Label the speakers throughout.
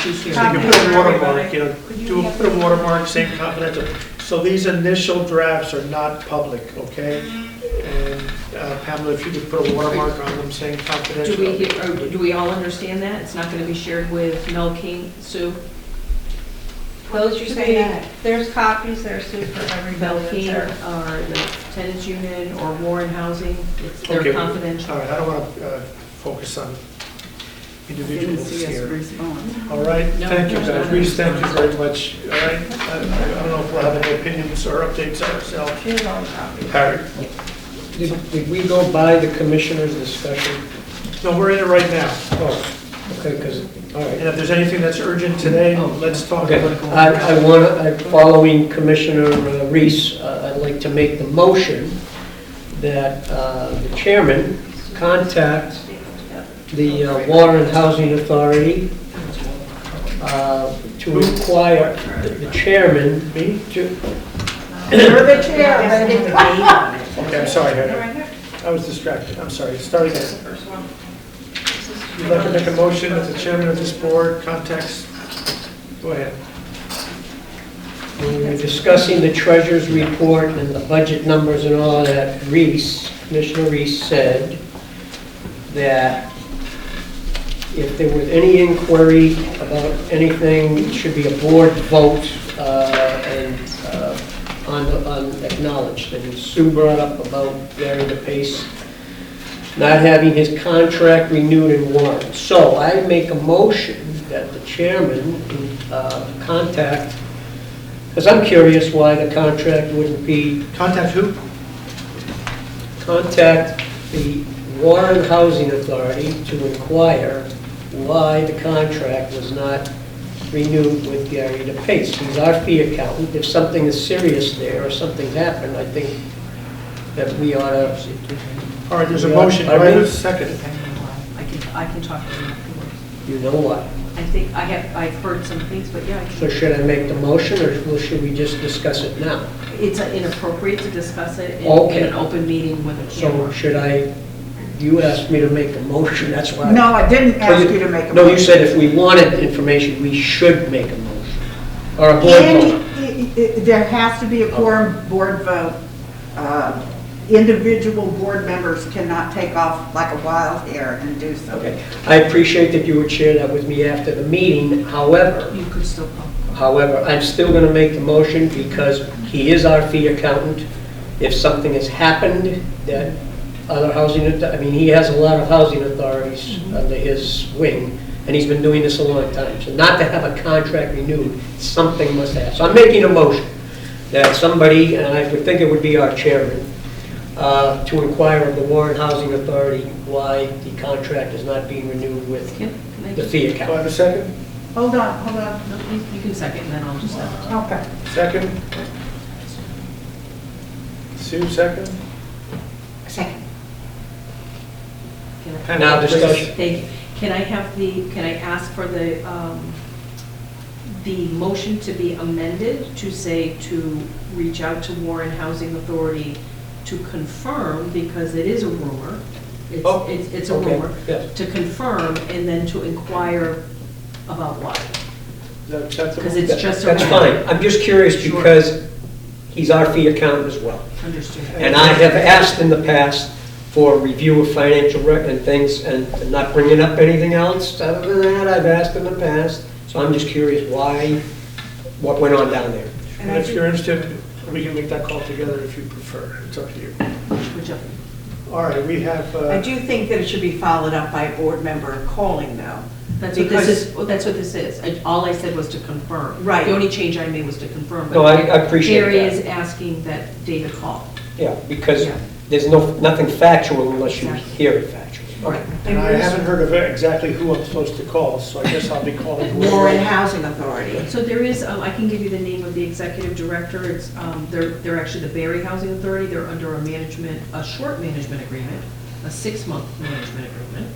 Speaker 1: she's here.
Speaker 2: Take
Speaker 3: Copy
Speaker 2: a
Speaker 3: it
Speaker 2: put
Speaker 3: for
Speaker 2: a watermark,
Speaker 3: everybody.
Speaker 2: you know,
Speaker 3: Could you
Speaker 2: do
Speaker 3: have-
Speaker 2: a, put a watermark, same confidential. So these initial drafts are not public, okay? And uh, Pamela, if you could put a watermark on them saying
Speaker 1: Do we,
Speaker 2: confidential.
Speaker 1: hear- or do we all understand that? It's not going to be shared with Mel King, Sue?
Speaker 3: Those you
Speaker 4: Should
Speaker 3: say,
Speaker 4: be-
Speaker 3: there's copies there, Sue, for everybody.
Speaker 1: Mel
Speaker 3: that's
Speaker 1: King
Speaker 3: there.
Speaker 1: or the tenants union or Warren Housing? It's They're
Speaker 2: Okay. All
Speaker 1: confidential.
Speaker 2: right, I don't want to focus on
Speaker 4: Didn't
Speaker 2: individuals
Speaker 4: see us
Speaker 2: here.
Speaker 4: respond.
Speaker 2: All right,
Speaker 1: No,
Speaker 2: thank you
Speaker 1: no,
Speaker 2: guys,
Speaker 1: no.
Speaker 2: we just thank you very much, all right? I I don't know if we'll have any opinions or updates ourselves.
Speaker 3: She has all the copies.
Speaker 2: Harry?
Speaker 5: Did did we go by the commissioner's discussion?
Speaker 2: No, we're in it right now.
Speaker 5: Oh, okay, because, all
Speaker 2: And
Speaker 5: right.
Speaker 2: if there's anything that's urgent today, let's talk
Speaker 5: Okay,
Speaker 2: about it.
Speaker 5: I I want, to. following Commissioner uh, Reese, uh, I'd like to make the motion that uh, the chairman contact the uh, Water and Housing Authority uh, to require the the chairman
Speaker 2: Me?
Speaker 5: to,
Speaker 3: You're the chair, baby.
Speaker 2: Okay, I'm sorry,
Speaker 3: They're
Speaker 2: Harry.
Speaker 3: right here.
Speaker 2: I was distracted, I'm sorry. Start
Speaker 3: That's
Speaker 2: again.
Speaker 3: the first one.
Speaker 2: You'd like to make a motion that the chairman of this board contacts, go ahead.
Speaker 5: when we were discussing the treasurer's report and the budget numbers and all that, Reese, Commissioner Reese said that if there was any inquiry about anything, it should be a board vote uh, and uh, un- unacknowledged. And Sue brought up about Gary DePace not having his contract renewed and warned. So I make a motion that the chairman uh, contact because I'm curious why the contract wouldn't be,
Speaker 2: Contact who?
Speaker 5: contact the Warren Housing Authority to inquire why the contract was not renewed with Gary DePace. He's our fee accountant. If something is serious there or something's happened, I think that we ought to,
Speaker 2: All right, there's a motion, do I have a second?
Speaker 1: I can, I can talk to you afterwards.
Speaker 5: you know what?
Speaker 1: I think, I have, I've heard some things, but yeah, I
Speaker 5: So
Speaker 1: can-
Speaker 5: should I make the motion or should we just discuss it now?
Speaker 1: it's inappropriate to discuss it in- in
Speaker 5: Okay.
Speaker 1: an open meeting with a
Speaker 5: So
Speaker 1: camera.
Speaker 5: should I, you asked me to make a motion, that's why. I-
Speaker 4: No, I didn't
Speaker 5: Well,
Speaker 4: ask you to make a.
Speaker 5: No, you said if we wanted information, we should make a motion, or a board
Speaker 4: Any,
Speaker 5: vote.
Speaker 4: i- i- there has to be
Speaker 5: Oh.
Speaker 4: a quorum board vote. Uh, Individual board members cannot take off like a wild hare and do so.
Speaker 5: Okay, I appreciate that you would share that with me after the meeting, however,
Speaker 1: You could still call.
Speaker 5: however, I'm still gonna make the motion because he is our fee accountant. If something has happened, that other housing, auth- I mean, he has a lot of housing authorities under his wing, and he's been doing this a long time, so not to have a contract renewed, something must have. So I'm making a motion that somebody, and I would think it would be our chairman, uh, to inquire of the Warren Housing Authority why the contract is not being renewed with
Speaker 1: Yep, can I
Speaker 5: the
Speaker 1: just-
Speaker 5: fee
Speaker 2: Do I
Speaker 5: account.
Speaker 2: have a second?
Speaker 4: Hold on, hold on.
Speaker 1: No, You you can second, and then I'll just.
Speaker 4: Okay.
Speaker 2: Second? Sue, second?
Speaker 4: Second.
Speaker 1: Can I-
Speaker 5: Now discussion.
Speaker 1: Thank you. Can I have the, can I ask for the, um, the motion to be amended to say to reach out to Warren Housing Authority to confirm, because it is a rumor, it's,
Speaker 5: Oh,
Speaker 1: it's- it's a
Speaker 5: okay,
Speaker 1: rumor,
Speaker 5: yes.
Speaker 1: to confirm and then to inquire about why.
Speaker 2: Is that acceptable?
Speaker 1: 'Cause it's just a
Speaker 5: That's fine,
Speaker 1: matter.
Speaker 5: I'm just curious
Speaker 1: Sure.
Speaker 5: because he's our fee accountant as well.
Speaker 1: Understood.
Speaker 5: And I have asked in the past for review of financial rec and things, and not bringing up anything else other than that, I've asked in the past. So I'm just curious why, what went on down there.
Speaker 2: And if you're interested, we can make that call together if you prefer, it's up to you.
Speaker 1: Which of-
Speaker 2: All right, we have,
Speaker 6: I
Speaker 2: uh,
Speaker 6: do think that it should be followed up by a board member calling, though.
Speaker 1: That's what this is, that's what this is. I- All I said was to confirm.
Speaker 6: Right.
Speaker 1: The only change I made was to confirm.
Speaker 5: No, I I appreciate
Speaker 1: Gary is
Speaker 5: that.
Speaker 1: asking that David call.
Speaker 5: Yeah, because
Speaker 1: Yeah.
Speaker 5: there's no, nothing factual unless you
Speaker 1: Exactly.
Speaker 5: hear it factual.
Speaker 6: Right.
Speaker 2: and I haven't heard of exactly who I'm supposed to call, so I guess I'll be calling. whoever.
Speaker 6: Warren Housing Authority.
Speaker 1: So there is, um, I can give you the name of the executive director, it's, um, they're, they're actually the Barry Housing Authority, they're under a management, a short management agreement, a six-month management agreement.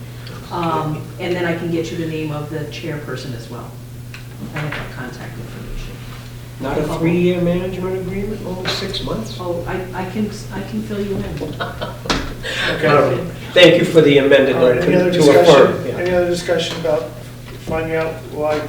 Speaker 1: Um, And then I can get you the name of the chairperson as well. I have that contact information.
Speaker 5: Not a three-year management agreement, only six months?
Speaker 1: Oh, I, I can, I can fill you in.
Speaker 2: Okay.
Speaker 5: Thank you for the amended,
Speaker 2: All right,
Speaker 5: note
Speaker 2: any other
Speaker 5: to affirm.
Speaker 2: discussion,
Speaker 5: yeah.
Speaker 2: any other discussion about finding out why